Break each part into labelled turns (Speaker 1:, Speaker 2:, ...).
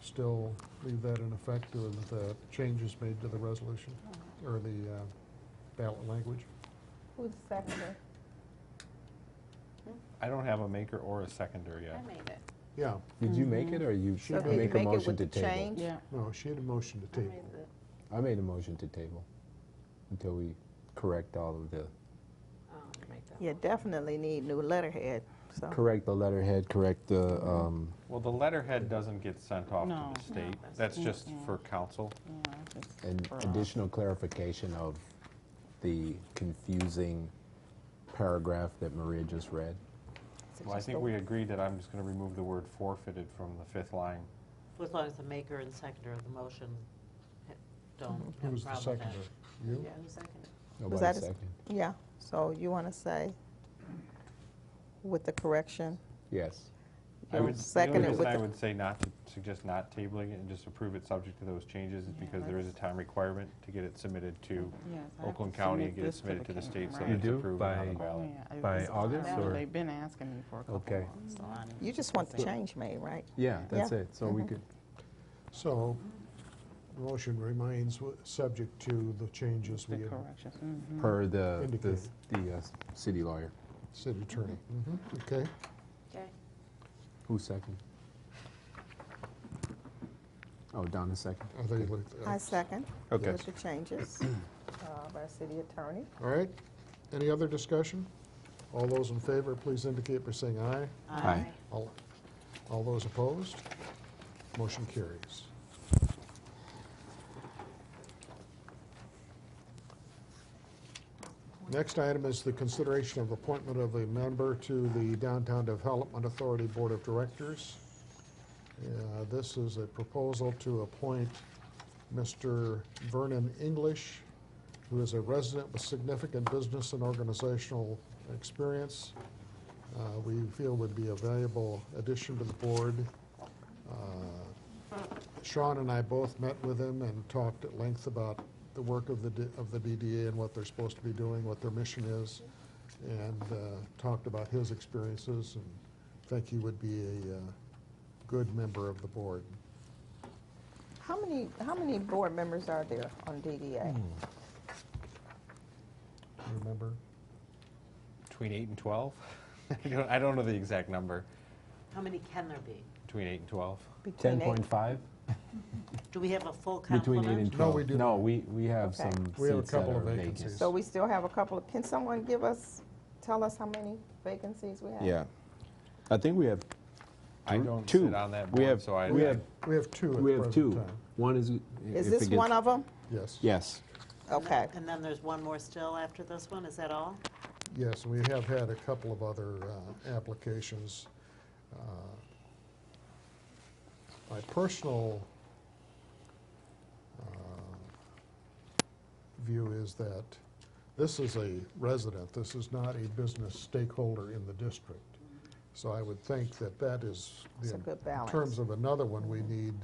Speaker 1: still leave that in effect with the changes made to the resolution, or the uh, ballot language?
Speaker 2: Who's the seconder?
Speaker 3: I don't have a maker or a seconder yet.
Speaker 4: I made it.
Speaker 1: Yeah,
Speaker 5: Did you make
Speaker 2: Mm-hmm.
Speaker 5: it, or you
Speaker 1: She
Speaker 5: I
Speaker 1: did.
Speaker 5: make
Speaker 2: Make
Speaker 5: a
Speaker 2: it
Speaker 5: motion
Speaker 2: with
Speaker 5: to
Speaker 2: the
Speaker 5: table?
Speaker 2: change?
Speaker 6: Yeah,
Speaker 1: no, she had a motion to
Speaker 4: I made
Speaker 1: table.
Speaker 4: the,
Speaker 5: I made a motion to table until we correct all of the,
Speaker 4: um, make that.
Speaker 2: Yeah, definitely need new letterhead, so.
Speaker 5: correct the letterhead, correct the,
Speaker 2: Mm-hmm.
Speaker 5: um,
Speaker 3: Well, the letterhead doesn't get sent off
Speaker 6: No.
Speaker 3: to the state.
Speaker 4: that's-
Speaker 3: That's just
Speaker 6: Mm-mm.
Speaker 3: for council.
Speaker 6: yeah, just
Speaker 5: and
Speaker 6: for us.
Speaker 5: additional clarification of the confusing paragraph that Maria just read.
Speaker 3: Well, I think we agreed that I'm just going to remove the word forfeited from the fifth line.
Speaker 7: As long as the maker and seconder of the motion ha- don't
Speaker 1: Who
Speaker 7: have
Speaker 1: was
Speaker 7: a
Speaker 1: the
Speaker 7: problem with that.
Speaker 1: seconder? You?
Speaker 4: Yeah, who seconded?
Speaker 5: Nobody
Speaker 2: that a s-
Speaker 5: second?
Speaker 2: Yeah, so you want to say with the correction?
Speaker 5: Yes.
Speaker 3: I
Speaker 2: You
Speaker 3: would, the
Speaker 2: second
Speaker 3: only
Speaker 2: it
Speaker 3: reason
Speaker 2: with
Speaker 3: I
Speaker 2: the-
Speaker 3: would say not to, suggest not tabling it and just approve it subject to those changes is
Speaker 6: Yeah,
Speaker 3: because there is a
Speaker 6: let's-
Speaker 3: time requirement to get it submitted to
Speaker 6: Yes, I have to
Speaker 3: Oakland County and
Speaker 6: submit
Speaker 3: get it
Speaker 6: this
Speaker 3: submitted to the
Speaker 6: coun-
Speaker 3: state so
Speaker 6: right.
Speaker 3: that
Speaker 5: You
Speaker 3: it's
Speaker 5: do?
Speaker 3: approved and on
Speaker 5: By-
Speaker 3: the
Speaker 6: Oh,
Speaker 3: ballot.
Speaker 6: yeah, I-
Speaker 5: by
Speaker 6: it's-
Speaker 5: August,
Speaker 6: yeah,
Speaker 5: or-
Speaker 6: They've been asking me for a couple
Speaker 5: Okay.
Speaker 6: months, so I need
Speaker 2: You
Speaker 6: to
Speaker 2: just want the
Speaker 6: say-
Speaker 2: change made, right?
Speaker 5: Yeah, that's
Speaker 2: Yeah. Mm-hmm.
Speaker 5: it. So we could,
Speaker 1: So, the motion remains w- subject to the changes
Speaker 6: The
Speaker 1: we had,
Speaker 6: corrections,
Speaker 2: Mm-hmm.
Speaker 6: mhm.
Speaker 5: per the, the,
Speaker 1: Indicated.
Speaker 5: the uh, city lawyer.
Speaker 1: city attorney. Mhm, Okay,
Speaker 4: Okay.
Speaker 5: Who second? Oh, Donna second.
Speaker 1: I think, uh, like that.
Speaker 2: I second.
Speaker 5: Okay.
Speaker 2: With the changes uh, by city attorney.
Speaker 1: all right. Any other discussion? All those in favor, please indicate by saying aye.
Speaker 7: Uh,
Speaker 5: Aye.
Speaker 1: All, all those opposed? Motion carries. Next item is the consideration of appointment of a member to the Downtown Development Authority Board of Directors. Uh, This is a proposal to appoint Mr. Vernon English, who is a resident with significant business and organizational experience uh, we feel would be a valuable addition to the board. Uh, Sean and I both met with him and talked at length about the work of the, D- of the DDA and what they're supposed to be doing, what their mission is, and uh, talked about his experiences, and think he would be a uh, good member of the board.
Speaker 2: How many, how many board members are there on DDA?
Speaker 5: Hmm,
Speaker 1: Remember?
Speaker 3: Between eight and 12? I don't, I don't know the exact number,
Speaker 7: How many can there be?
Speaker 3: between eight and 12.
Speaker 2: Between
Speaker 5: Ten
Speaker 2: eight-
Speaker 5: point five?
Speaker 7: Do we have a full
Speaker 5: Between eight
Speaker 7: complement?
Speaker 5: and twelve?
Speaker 1: No, we do
Speaker 5: No,
Speaker 1: not.
Speaker 5: we, we have
Speaker 2: Okay.
Speaker 5: some seats
Speaker 1: We have a
Speaker 5: that
Speaker 1: couple
Speaker 5: are
Speaker 1: of
Speaker 5: vacant.
Speaker 1: vacancies.
Speaker 2: So we still have a couple of, can someone give us, tell us how many vacancies we have?
Speaker 5: Yeah. I think we have
Speaker 3: I don't
Speaker 5: two.
Speaker 3: sit on that
Speaker 5: We
Speaker 3: board,
Speaker 5: have,
Speaker 3: so I.
Speaker 5: we have,
Speaker 1: We have two
Speaker 5: we
Speaker 1: at
Speaker 5: have
Speaker 1: present
Speaker 5: two.
Speaker 1: time.
Speaker 5: One is.
Speaker 2: Is
Speaker 5: if
Speaker 2: this
Speaker 5: it gets-
Speaker 2: one of them?
Speaker 1: Yes,
Speaker 5: Yes.
Speaker 2: Okay.
Speaker 7: And then there's one more still after this one, is that all?
Speaker 1: yes, we have had a couple of other uh, applications. Uh, My personal uh, view is that this is a resident, this is not a business stakeholder in the district. So I would think that that is,
Speaker 2: It's
Speaker 1: the-
Speaker 2: a good balance.
Speaker 1: in terms of another one, we need,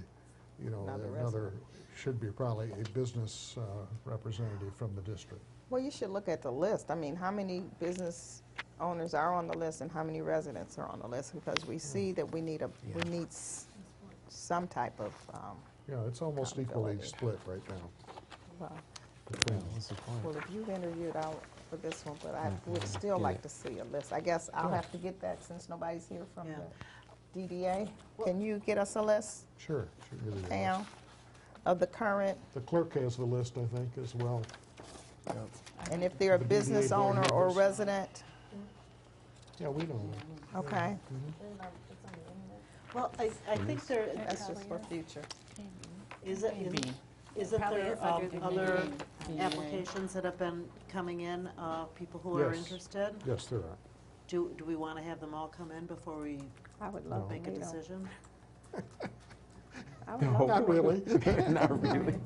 Speaker 1: you know,
Speaker 2: Another
Speaker 1: another, should be probably a business uh, representative from the district.
Speaker 2: Well, you should look at the list. I mean, how many business owners are on the list and how many residents are on the list? Because we see that we need a, we need s- some type of, um,
Speaker 1: Yeah, it's almost equally
Speaker 2: Accountability.
Speaker 1: split right now.
Speaker 2: well,
Speaker 1: between them.
Speaker 2: well, if you've interviewed out for this one, but I would still like to see a list. I guess I'll have to get that since nobody's here from
Speaker 7: Yeah.
Speaker 2: the DDA. Can you get us a list,
Speaker 1: Sure. should give you the
Speaker 2: Pam,
Speaker 1: list.
Speaker 2: of the current?
Speaker 1: The clerk has the list, I think, as well.
Speaker 2: And if they're a
Speaker 1: The DDA
Speaker 2: business
Speaker 1: board
Speaker 2: owner or
Speaker 1: members.
Speaker 2: resident,
Speaker 1: Yeah, we know.
Speaker 2: okay?
Speaker 7: Well, I, I think there,
Speaker 2: That's just for future.
Speaker 7: is it, is-
Speaker 6: Maybe.
Speaker 7: isn't
Speaker 4: Probably
Speaker 7: there
Speaker 4: is
Speaker 7: um,
Speaker 4: under the
Speaker 7: other
Speaker 6: DDA.
Speaker 7: applications that have been coming in, uh, people who are
Speaker 1: Yes.
Speaker 7: interested?
Speaker 1: Yes, there are.
Speaker 7: Do, do we want to have them all come in before we
Speaker 2: I would love to
Speaker 7: make a
Speaker 2: meet 'em.
Speaker 7: decision?
Speaker 2: I would
Speaker 5: Oh.
Speaker 2: love
Speaker 1: Not really.
Speaker 5: Not really.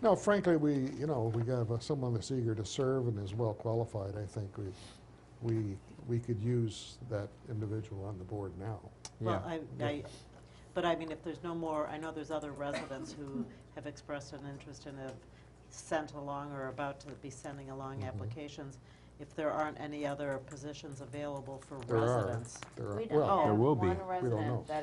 Speaker 1: No, frankly, we, you know, we got uh, someone that's eager to serve and is well qualified, I think we, we, we could use that individual on the board now.
Speaker 7: Well, I, I, but I mean, if there's no more, I know there's other residents who have expressed an interest and have sent along or about to be sending
Speaker 1: Mm-hmm.
Speaker 7: along applications. If there aren't any other positions available for
Speaker 1: There are.
Speaker 7: residents.
Speaker 1: There are,
Speaker 4: We don't
Speaker 1: well,
Speaker 5: there
Speaker 4: have
Speaker 5: will be.
Speaker 4: one
Speaker 5: We
Speaker 1: know.
Speaker 4: resident that